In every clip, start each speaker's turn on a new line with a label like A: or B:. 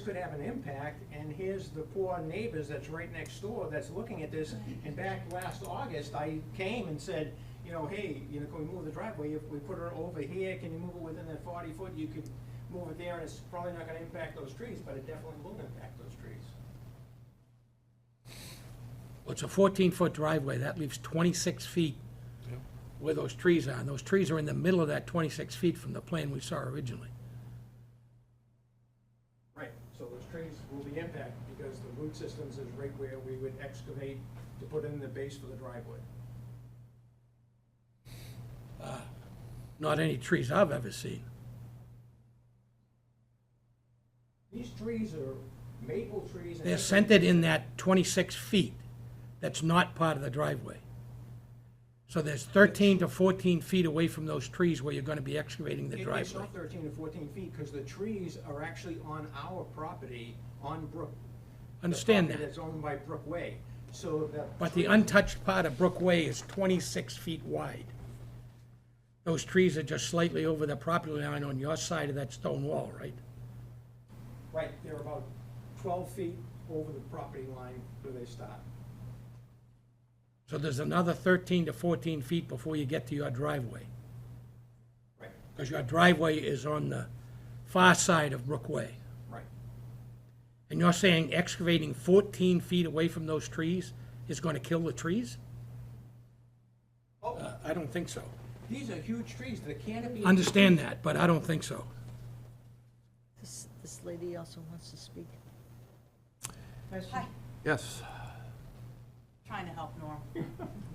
A: could have an impact, and here's the poor neighbors that's right next door that's looking at this. And back last August, I came and said, you know, hey, you know, can we move the driveway? If we put it over here, can you move it within that forty foot? You could move it there, and it's probably not gonna impact those trees, but it definitely will impact those trees.
B: Well, It's a 14-foot driveway, that leaves 26 feet where those trees are, and those trees are in the middle of that 26 feet from the plan we saw originally.
A: Right, so those trees will be impacted because the root systems is right where we would excavate to put in the base for the driveway.
B: Not any trees I've ever seen.
A: These trees are maple trees. and
B: They're centered in that 26 feet that's not part of the driveway. So there's 13 to 14 feet away from those trees where you're going to be excavating the
A: It- It's
B: driveway.
A: not thirteen to fourteen feet because the trees are actually on our property on Brook. the
B: Understand
A: property
B: that.
A: That's owned by Brook Way, so that.
B: But the untouched part of Brook Way is 26 feet wide. Those trees are just slightly over the property line on your side of that stone wall, right?
A: Right, they're about twelve feet over the property line where they stop.
B: So there's another 13 to 14 feet before you get to your driveway,
A: Right,
B: because your driveway is on the far side of Brook Way.
A: right.
B: And you're saying excavating 14 feet away from those trees is going to kill the trees?
A: Oh,
B: Uh, I don't think so.
A: these are huge trees, the canopy.
B: Understand that, but I don't think so.
C: This, this lady also wants to speak.
D: Hi,
E: Yes.
D: trying to help Norm.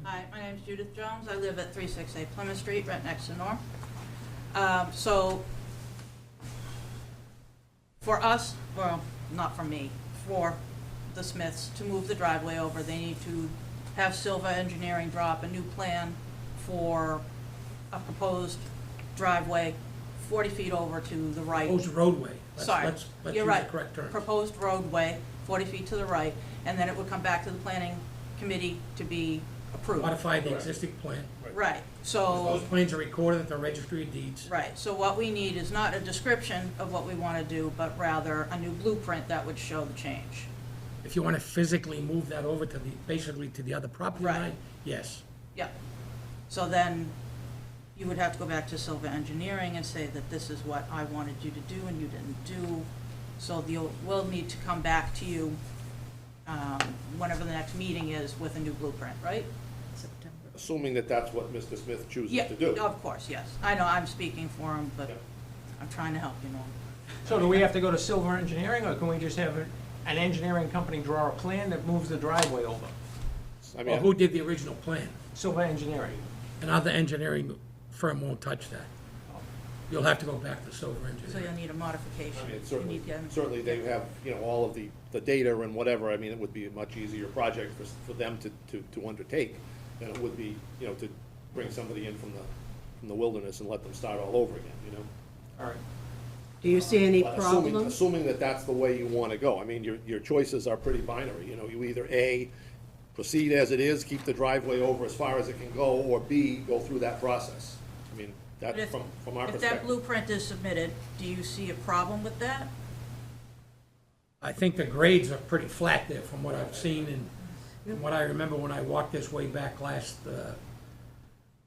D: Hi, my name's Judith Jones. I live at 368 Plymouth Street, right next to Norm. Um, So for us, well, not for me, for the Smiths to move the driveway over, they need to have Silva Engineering drop a new plan for a proposed driveway 40 feet over to the right.
B: Proposed roadway. Let's-
D: Sorry,
B: let's- let's
D: you're
B: use the
D: right.
B: correct term.
D: Proposed roadway, 40 feet to the right, and then it would come back to the planning committee to be approved.
B: Modify the existing plan.
D: Right,
B: Those
D: so,
B: plans are recorded at the registry of deeds.
D: right, so what we need is not a description of what we want to do, but rather a new blueprint that would show the change.
B: If you want to physically move that over to the, basically to the other property
D: Right.
B: line, yes.
D: Yep. So then you would have to go back to Silva Engineering and say that this is what I wanted you to do and you didn't do. So you'll, we'll need to come back to you, um, whenever the next meeting is with a new blueprint, right?
C: September.
F: Assuming that that's what Mr. Smith chooses
D: Yeah,
F: to do.
D: of course, yes. I know, I'm speaking for him, but
F: Yeah.
D: I'm trying to help you, Norm.
A: So do we have to go to Silver Engineering, or can we just have an engineering company draw a plan that moves the driveway over?
F: I
B: Well,
F: mean,
B: who did the original plan?
A: Silver Engineering.
B: Another engineering firm won't touch that. You'll have to go back to Silver
D: So
B: Engineering.
D: you'll need a
F: I
D: modification.
F: mean,
D: You
F: certainly,
D: need to-
F: certainly they have, you know, all of the, the data and whatever. I mean, it would be a much easier project for, s- for them to, to, to undertake than it would be, you know, to bring somebody in from the, from the wilderness and let them start all over again, you know?
A: All right.
G: Do you see any
F: But assuming-
G: problem?
F: Assuming that that's the way you want to go. I mean, your, your choices are pretty binary, you know, you either A, proceed as it is, keep the driveway over as far as it can go, or B, go through that process. I mean,
D: But
F: that's
D: if-
F: from, from our
D: If that
F: perspective.
D: blueprint is submitted, do you see a problem with that?
B: I think the grades are pretty flat there from what I've seen and- and what I remember when I walked this way back last uh,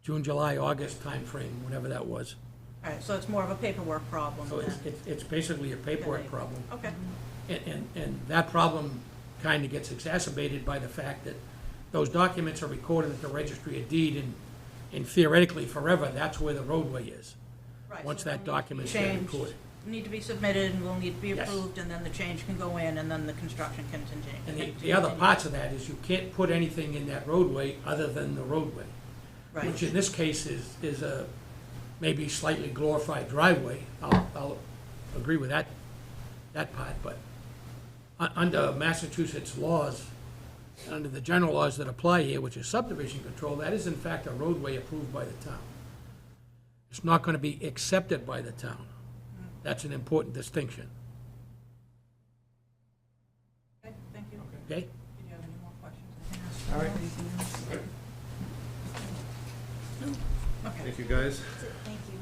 B: June, July, August timeframe, whenever that was.
D: All right, so it's more of a paperwork problem
B: So it's,
D: than-
B: it's- it's basically a paperwork problem.
D: Okay.
B: And, and, and that problem kind of gets exacerbated by the fact that those documents are recorded at the registry of deed and, and theoretically forever, that's where the roadway is.
D: Right,
B: Once
D: so
B: that
D: then
B: document's been
D: change
B: recorded.
D: Need to be submitted and will need to be
B: Yes.
D: approved, and then the change can go in, and then the construction can continue.
B: And the, the other parts of that is you can't put anything in that roadway other than the roadway.
D: Right,
B: Which in this case is, is a maybe slightly glorified driveway. I'll, I'll agree with that, that part, but u- under Massachusetts laws, and under the general laws that apply here, which is subdivision control, that is in fact a roadway approved by the town. It's not gonna be accepted by the town. That's an important distinction,
D: okay, thank you.
B: okay?
D: Did you have any more questions?
A: All right.
D: Okay.
E: Thank you, guys.
C: Thank you.